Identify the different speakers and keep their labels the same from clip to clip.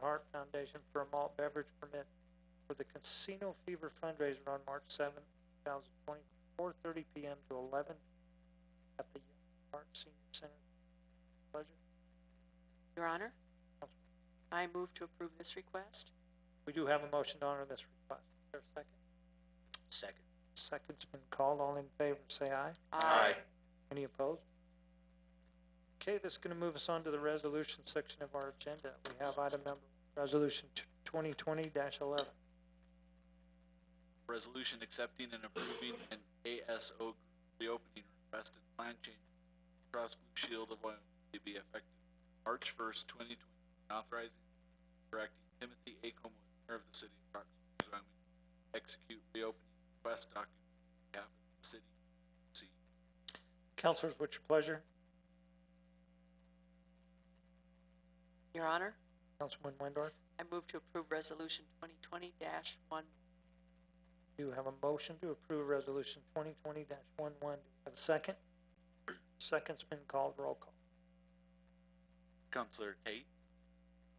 Speaker 1: Hart Foundation for a malt beverage permit for the Casino Fever fundraiser on March seventh, two thousand twenty, four thirty P M to eleven at the Hart Senior Center. Pleasure,
Speaker 2: Your Honor, I move to approve this request.
Speaker 1: we do have a motion to honor this request, is there a second?
Speaker 3: Second.
Speaker 1: Second's been called, all in favor, say aye. Any opposed? Okay, that's gonna move us on to the resolution section of our agenda. We have item number, resolution twenty twenty eleven.
Speaker 3: Resolution accepting and approving an ASO group reopening request and plan change across Blue Shield of Wyoming to be effective March first, twenty twenty, authorizing and directing Timothy A. Como, mayor of the city of Rock Springs, Wyoming, to execute reopening request document on behalf of the city. See,
Speaker 1: Counselors, what's your pleasure?
Speaker 2: Your Honor,
Speaker 1: Councilman Windorf,
Speaker 2: I move to approve Resolution twenty twenty dash one.
Speaker 1: you have a motion to approve resolution twenty twenty dash one one. Do we have a second? Second's been called, roll call.
Speaker 3: Counselor Tate,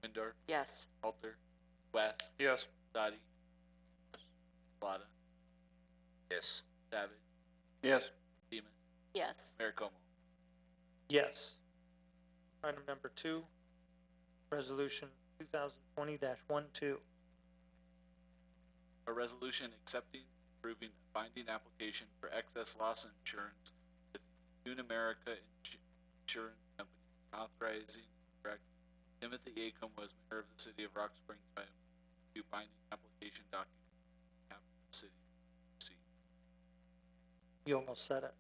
Speaker 3: Windor,
Speaker 2: Yes.
Speaker 3: Alter, West,
Speaker 4: Yes.
Speaker 3: Dottie, Shalata,
Speaker 4: Yes.
Speaker 3: Savage,
Speaker 4: Yes.
Speaker 3: Demus,
Speaker 2: Yes.
Speaker 3: Mayor Como.
Speaker 1: Yes. Item number two, resolution two thousand twenty dash one two.
Speaker 3: A resolution accepting, and approving a binding application for excess loss insurance with New America Insu- Insurance Company, authorizing and directing Timothy Acom was mayor of the city of Rock Springs, Wyoming, to do binding application document on behalf of the city. See,
Speaker 1: You almost said it.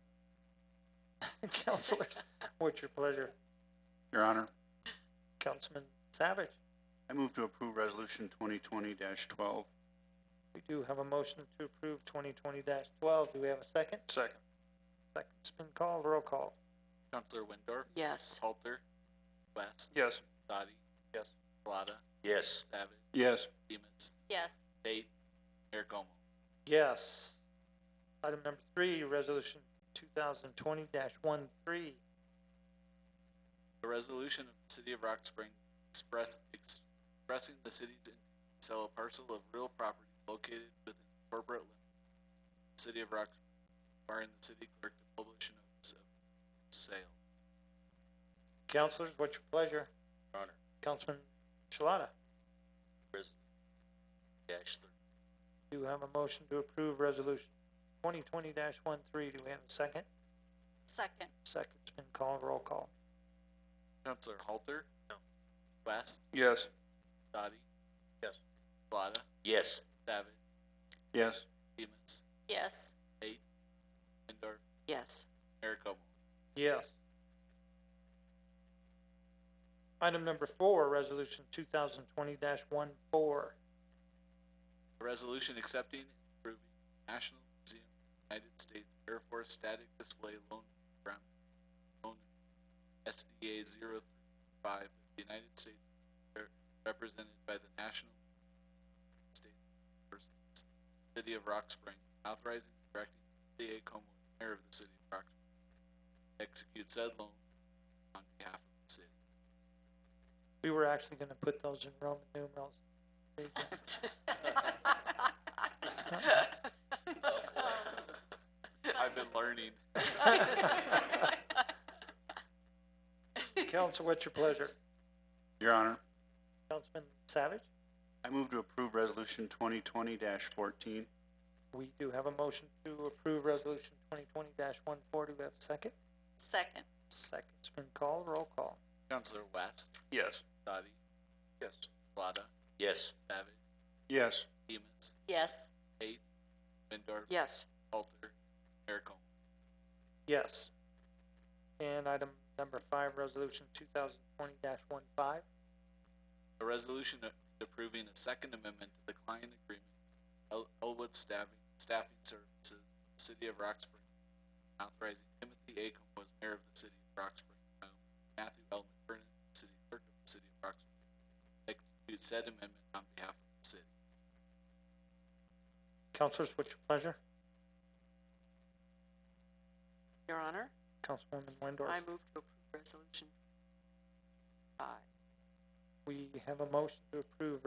Speaker 1: Counselors, what's your pleasure?
Speaker 5: Your Honor,
Speaker 1: Councilman Savage?
Speaker 5: I move to approve Resolution twenty twenty twelve.
Speaker 1: We do have a motion to approve twenty twenty twelve. Do we have a second?
Speaker 4: Second.
Speaker 1: Second's been called. Roll call.
Speaker 3: Counselor Windor,
Speaker 2: Yes.
Speaker 3: Halter, West,
Speaker 4: Yes.
Speaker 3: Dottie.
Speaker 5: Yes.
Speaker 3: Shalata,
Speaker 4: Yes.
Speaker 3: Savage,
Speaker 5: Yes.
Speaker 3: Demus,
Speaker 2: Yes.
Speaker 3: Tate, Mayor Como.
Speaker 1: Yes. Item number three, resolution two thousand twenty one three.
Speaker 3: A resolution of the city of Rock Springs express, expressing the city's intent to sell a parcel of real property located within corporate limits. of the City of Rock Springs, requiring the city clerk to publish a notice of sale.
Speaker 1: Counselors, what's your pleasure?
Speaker 4: Honor.
Speaker 1: Councilman Shalata,
Speaker 4: Dash thirty.
Speaker 1: do you have a motion to approve resolution twenty twenty one three? Do we have a second?
Speaker 2: Second.
Speaker 1: Second's been called. Roll call.
Speaker 3: Counselor Halter? No. West?
Speaker 4: Yes.
Speaker 3: Dottie?
Speaker 5: Yes.
Speaker 3: Shalata?
Speaker 4: Yes.
Speaker 3: Savage?
Speaker 5: Yes.
Speaker 3: Demus?
Speaker 2: Yes.
Speaker 3: Lindor?
Speaker 2: Yes.
Speaker 3: Mayor Como?
Speaker 1: Yes. Item number four, resolution two thousand twenty one four.
Speaker 3: A resolution accepting and approving National Museum of the United States Air Force Static Display Loan Program, loan SDA zero three five, of the United States Air- represented by the National State versus City of Rock Spring, authorizing and directing the A. Como, mayor of the city of Rock Spring, to execute said loan on behalf of the city.
Speaker 1: We were actually gonna put those in Roman numerals.
Speaker 3: I've been learning.
Speaker 1: Council, what's your pleasure?
Speaker 5: Your Honor,
Speaker 1: Councilman Savage?
Speaker 5: I move to approve Resolution twenty twenty fourteen.
Speaker 1: We do have a motion to approve resolution twenty twenty one four. Do we have a second?
Speaker 2: Second.
Speaker 1: Second's been called. Roll call.
Speaker 3: Counselor West,
Speaker 4: Yes.
Speaker 3: Dottie,
Speaker 5: Yes.
Speaker 3: Shalata,
Speaker 4: Yes.
Speaker 3: Savage,
Speaker 5: Yes.
Speaker 3: Demus,
Speaker 2: Yes.
Speaker 3: Tate, Windor,
Speaker 2: Yes.
Speaker 3: Halter, Mayor Como.
Speaker 1: Yes. And item number five, resolution two thousand twenty one five.
Speaker 3: A resolution approving a second amendment to the client agreement, El- Elwood Staffing, Staffing Services, City of Rock Springs, authorizing Timothy A. Como as mayor of the city of Rock Springs, Wyoming, Matthew L. McFerrin, city clerk of the city of Rock Springs, to execute said amendment on behalf of the city.
Speaker 1: Councilors, what's your pleasure?
Speaker 2: Your Honor,
Speaker 1: Councilwoman Windorf?
Speaker 2: I move to approve Resolution five.
Speaker 1: We have a motion to approve